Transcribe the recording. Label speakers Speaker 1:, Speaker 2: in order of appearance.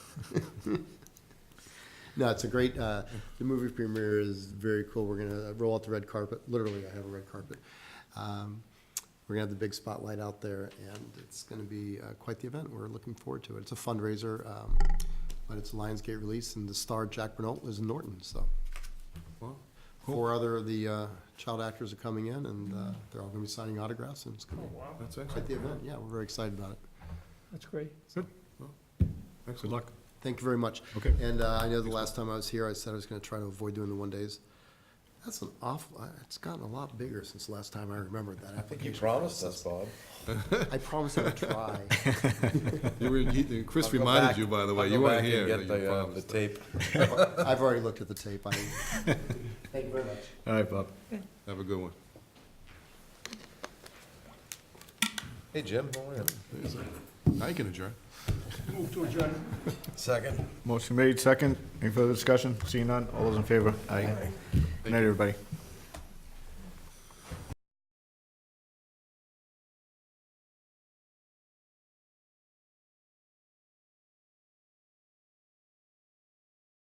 Speaker 1: No, it's a great, uh, the movie premiere is very cool. We're gonna roll out the red carpet, literally, I have a red carpet. Um, We're gonna have the big spotlight out there, and it's gonna be uh, quite the event. We're looking forward to it. It's a fundraiser, um, but it's a Lionsgate release, and the star, Jack Bernal, is Norton, so. Four other of the uh, child actors are coming in, and uh, they're all gonna be signing autographs, and it's gonna be
Speaker 2: That's
Speaker 1: quite
Speaker 2: excellent.
Speaker 1: the event. Yeah, we're very excited about it.
Speaker 3: That's great.
Speaker 2: Good luck.
Speaker 1: Thank you very much.
Speaker 2: Okay.
Speaker 1: And uh, I know the last time I was here, I said I was going to try to avoid doing the one-days. That's an awful, I- it's gotten a lot bigger since the last time I remembered that
Speaker 4: I think you
Speaker 1: application.
Speaker 4: promised us, Bob.
Speaker 1: I promised I would try.
Speaker 2: You were, he- Chris
Speaker 4: I'll go
Speaker 2: reminded
Speaker 4: back-
Speaker 2: you, by the way,
Speaker 4: I'll
Speaker 2: you
Speaker 4: go
Speaker 2: weren't
Speaker 4: back and
Speaker 2: here.
Speaker 4: get
Speaker 2: that you
Speaker 4: the, uh,
Speaker 2: promised
Speaker 4: The tape.
Speaker 1: I've already looked at the tape. I, thank you very much.
Speaker 2: that. All right, Bob. Have a good one.
Speaker 4: Hey, Jim, how are you?
Speaker 2: Now you can adjourn.
Speaker 4: Second.
Speaker 5: Motion made, second. Any further discussion? Seeing none, all those in favor? Aye. Good night, everybody.